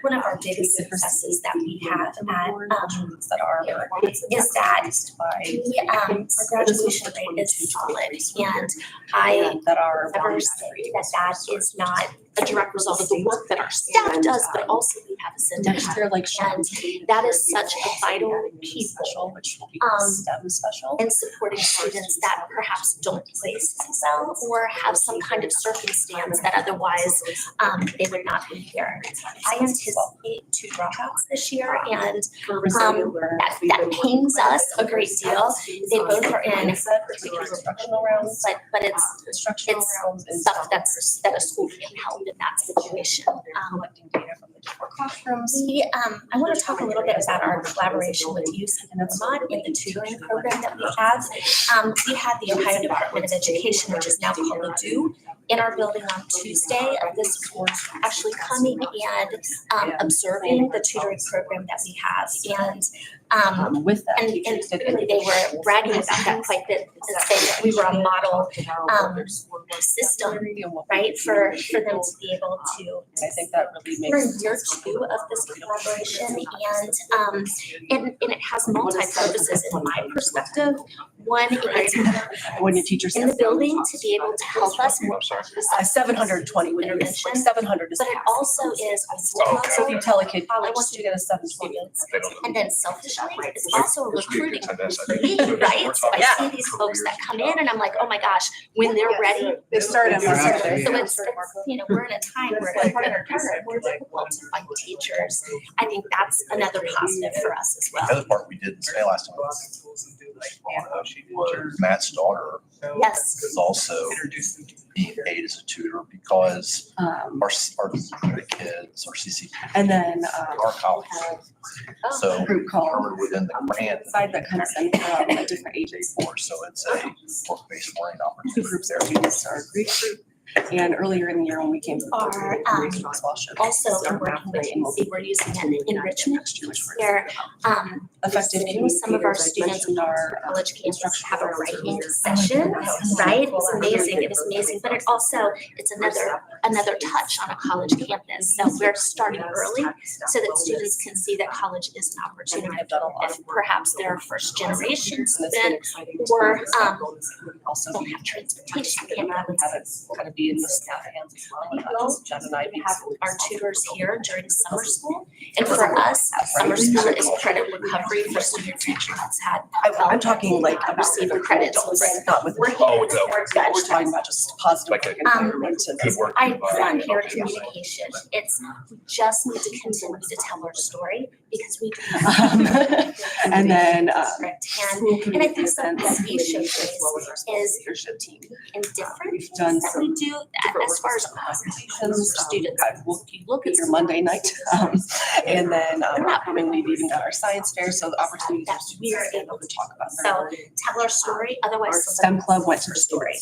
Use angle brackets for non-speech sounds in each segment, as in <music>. one of our biggest successes that we have at, um, that are is that by we, um, our graduation rate is solid. And I that are never say that that is not um, a direct result of the work that our staff does, but also we have a syndic. Next year, like. And that is such a vital piece Special, which will be Um, STEM special. and supporting students that perhaps don't place well or have some kind of circumstance that otherwise um they would not be here. I anticipate two dropouts this year and um that that pains us a great deal. They both are in particular instructional rounds, but but um, it's Instructional it's rounds and stuff that's that a school can help in that situation. Um Collecting data from the different classrooms. we, um, I want to talk a little bit about our collaboration with UC Vermont in the tutoring program that we have. Um, we had the Ohio Department of Education, which is now called ODU, in our building on Tuesday of this week, actually coming and, um, observing the tutoring program that we have. And, um, Um, with that. and, and teachers did really they were individual bragging about that quite a bit and saying that we were a model, um, system, Review and what we right, do for, with for them people. to be able to I think that really we're in makes. year two of this collaboration and um and and it has multi-purposes in my perspective. One, it's When your teacher says. uh, in the building to be able to help us more focus on Seven hundred and twenty, when you're, intervention, seven hundred is. But it also is on school Oh, okay. So if you council tell a kid, I College want you to get a seven twenty. students. They don't- And then selfishly, it's also Which we recruiting could attend this, I think. me, So right? So we're I see talking these folks that come in and I'm like, oh my gosh, when they're ready, They started on Mark. So it's, it's, you know, we're in a time where it's harder, harder, more difficult to find teachers. I think that's another positive for us as The well. other part we didn't say last time was Matt's daughter Yes, is also being paid as a tutor because Um, our, our the kids, our CCP, and then, uh, um, our college. So group call, covered within the grant side that comes in from the different ages. for, so it's a work-based learning Two opportunity groups there. are, we just are Greek group, and earlier in the year when we came. to the Our, Greek um, group as well, showed also us our we're working with pathway and we'll be UC, we're using an enrichment next year, which we're where, um, effective sitting with some of our students communicators, like mentioned, uh, college campus have a writing session, right? It's amazing, it is amazing, but it also, it's another, another touch on a college campus. So we're starting early so that students can see that college is an our, opportunity. have done a lot of If perhaps they're a first generation students, and it's student been exciting. to or, see that um, Also don't be have transportation, can't and have it. have it kind of be in the staff hands as well, and not just Jen and I. We have our tutors here during summer school. And for us, summer school is credit recovery for students who has had. I, I'm talking like about Receive the credits, adults, right. not with. We're Oh, here no. for We're judge. talking about just positive Like a- work environment and Good work. I uh, run here at communication. It's, we just need to continue to tell our story because we. <laughs> do have Um, And then, uh, district And school community I think something events, that we community should as well as our school is- Leadership team. indifferent We've done things that we some do different as far as work options for um, students. got- We'll If you look at get your Monday night, um, and then, um, We're not- upcoming, we've even got our science fair, so the opportunity. That we are able to talk about. So, their- tell our story, Our otherwise. STEM club went to the story.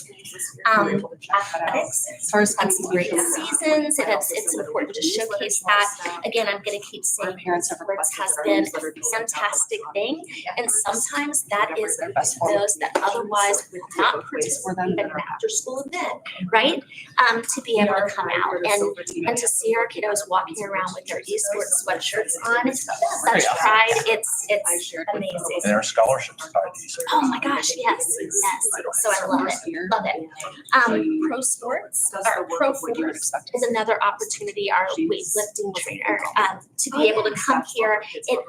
Um, As athletics, far as. had some great communication, seasons and it's, it's important to showcase that. Again, I'm gonna keep Our saying parents have sports requested has that our been newsletter be a sent out. fantastic thing and sometimes that is Their best form of those that otherwise would not participate For them. in an after-school event, Mm-hmm. right? Um, to be able to come out and, and to see our kiddos walking around with their esports sweatshirts on, such pride, it's, it's amazing. And our scholarships tied to E these. Oh my gosh, yes, yes, so I love it, love it. Um, pro sports, or pro force is another opportunity, our weightlifting trainer, um, to be able to come here. It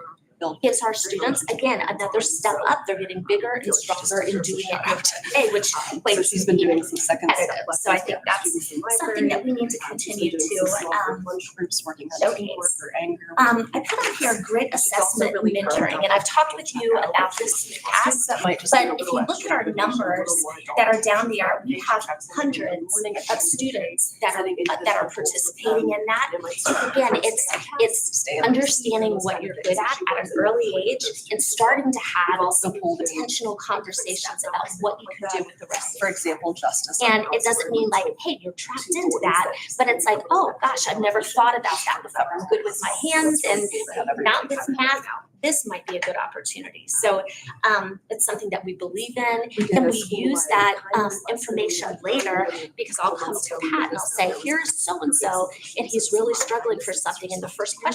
gives our students, again, another step up, they're getting bigger and stronger in doing it every <laughs> day, which Um, So makes she's it been doing even some second competitive. step. So I think that's something that we need to continue to, um, Groups working on showcase. teamwork or anger. um, I put on here grit assessment mentoring, and I've talked with you about this in the past. Students that might just. but if you look at our numbers that are down there, we have hundreds of students that are, that are participating in that. So again, it's, it's understanding what you're good at at an early age and starting to We've have also pulled in, intentional conversations about what you can do with the rest of for example, justice. it. And it doesn't mean like, hey, you're trapped into that, but it's like, oh, gosh, I've never thought about that before. I'm good with my hands and not with math. This might be a good opportunity. So, um, it's something that we believe in and we use that um information later because I'll come to Pat and I'll say, here's so and so, and he's really struggling for something, and the first question